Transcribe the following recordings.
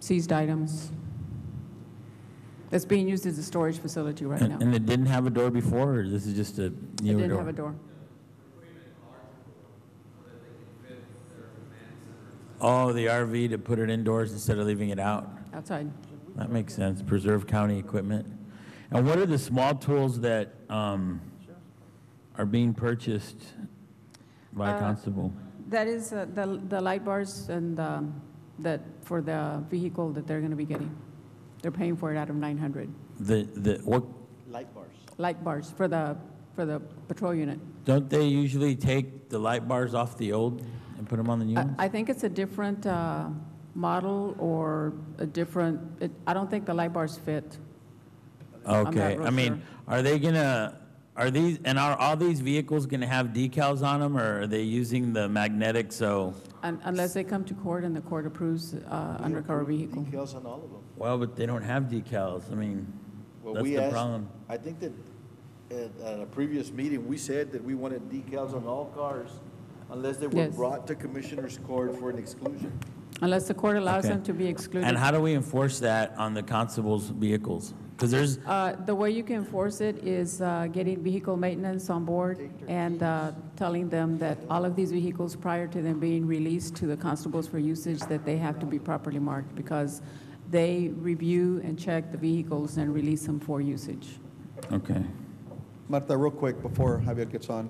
seized items that's being used as a storage facility right now. And and it didn't have a door before, or this is just a It newer didn't have a door? door. Oh, the RV to put it indoors instead of leaving it out? Outside. That makes sense, preserve county equipment. And what are the small tools that um, are being purchased by Uh, Constable? That is uh, the, the light bars and um, that, for the vehicle that they're going to be getting. They're paying for it out of 900. The, the, what, Light bars. Light bars for the, for the patrol unit. don't they usually take the light bars off the old and put them on the new I- ones? I think it's a different uh, model or a different, it- I don't think the light bars fit. I'm not Okay, real I sure. mean, are they gonna, are these, and are all these vehicles gonna have decals on them, or are they using the magnetic, so? un- Unless they come to court and the court approves uh, undercover vehicle. Decals on all of them. Well, but they don't have decals, I mean, Well, that's we the asked- problem. I think that at, at a previous meeting, we said that we wanted decals on all cars unless they were Yes. brought to commissioner's court for an exclusion. Unless the court allows Okay. them to be excluded. And how do we enforce that on the constables' vehicles? Because there's, Uh, The way you can enforce it is uh, getting vehicle maintenance on board and uh, telling them that all of these vehicles, prior to them being released to the constables for usage, that they have to be properly marked because they review and check the vehicles and release them for usage. okay, Marta, real quick before Javier gets on,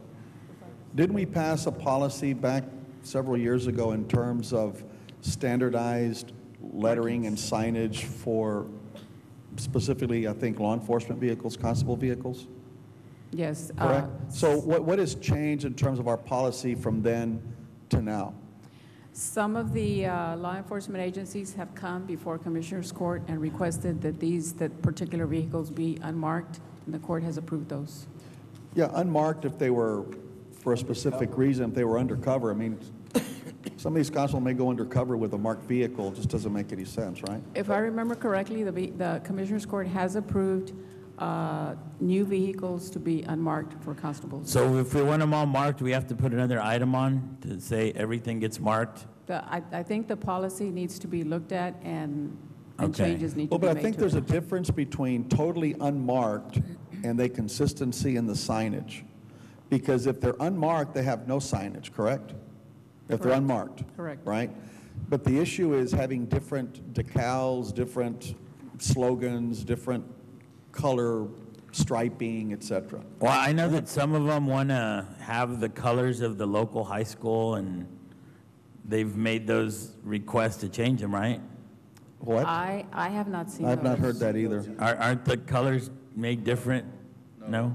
didn't we pass a policy back several years ago in terms of standardized lettering and signage for specifically, I think, law enforcement vehicles, constable vehicles? Yes. uh, Correct? So what, what has changed in terms of our policy from then to now? Some of the uh, law enforcement agencies have come before Commissioners Court and requested that these, that particular vehicles be unmarked, and the court has approved those. Yeah, unmarked if they were, for a specific reason, if they were undercover. I mean, some of these constables may go undercover with a marked vehicle, It just doesn't make any sense, right? If I remember correctly, the, ve- the Commissioners Court has approved uh, new vehicles to be unmarked for constables. so if we want them all marked, we have to put another item on to say everything gets marked? The, I, I think the policy needs to be looked at and, and Okay. changes need to Well, be made but to I think it. there's a difference between totally unmarked and the consistency in the signage. Because if they're unmarked, they have no signage, correct? If they're Correct. unmarked. Correct. Right? But the issue is having different decals, different slogans, different color striping, et cetera. Well, I know that some of them want to have the colors of the local high school, and they've made those requests to change them, right? What? I, I have not seen I've not those. heard that either. Ar- Aren't the colors made different? I- No?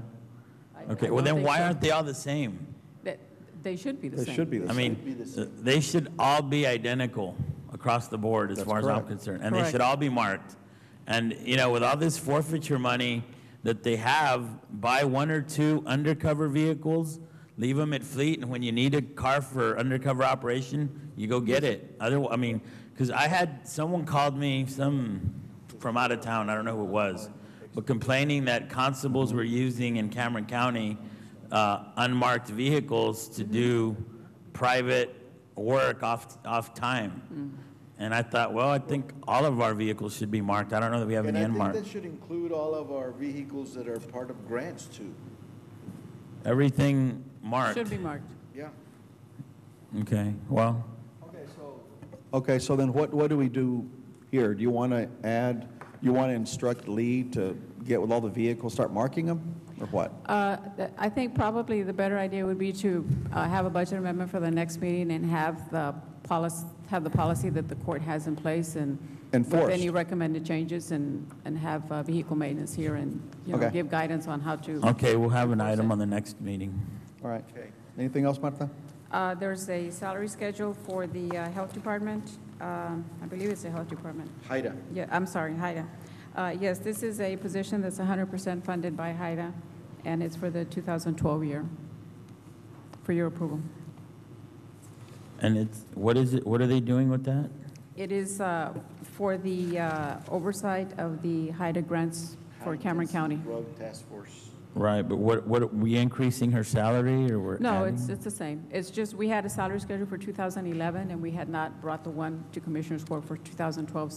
I Okay, well don't then think why so. aren't they all the same? That- They should be the They same. should be the I same. mean, they should all be identical across the board as That's far as I'm correct. concerned. And they should Correct. all be marked. And, you know, with all this forfeiture money that they have, buy one or two undercover vehicles, leave them at fleet, and when you need a car for undercover operation, you go get it. Other, I mean, because I had, someone called me, some from out of town, I don't know who it was, but complaining that constables were using in Cameron County uh, unmarked vehicles to do private work off, off Mm. time. And I thought, well, I think all of our vehicles should be marked. I don't know that we have And any I think that unmarked. should include all of our vehicles that are part of grants too. Everything marked. Should be marked. Yeah. Okay, well, Okay, so. Okay, so then what, what do we do here? Do you want to add, you want to instruct Lee to get with all the vehicles, start marking them, or what? Uh, th- I think probably the better idea would be to uh, have a budget amendment for the next meeting and have the policy, have the policy that the court has in place and Enforced. with any recommended changes and, and have uh, vehicle maintenance here and, you know, Okay. give guidance on how to. okay, we'll have an item on the next meeting. All right. Okay. Anything else, Martha? Uh, There's a salary schedule for the uh, Health Department. Uh, Um, I believe it's the Health Department. Haida. Yeah, I'm sorry, HIDA. Uh, Yes, this is a position that's 100% funded by HIDA, And it's for the 2012 year, for your approval. And it's, what is it, what are they doing with that? It is uh, for the uh, oversight of the HIDA grants for Cameron County. Drug Task Force. Right, but what, what, we increasing her salary, or we're No, adding? it's, it's the same. It's just, we had a salary schedule for 2011, and we had not brought the one to Commissioners Court for 2012,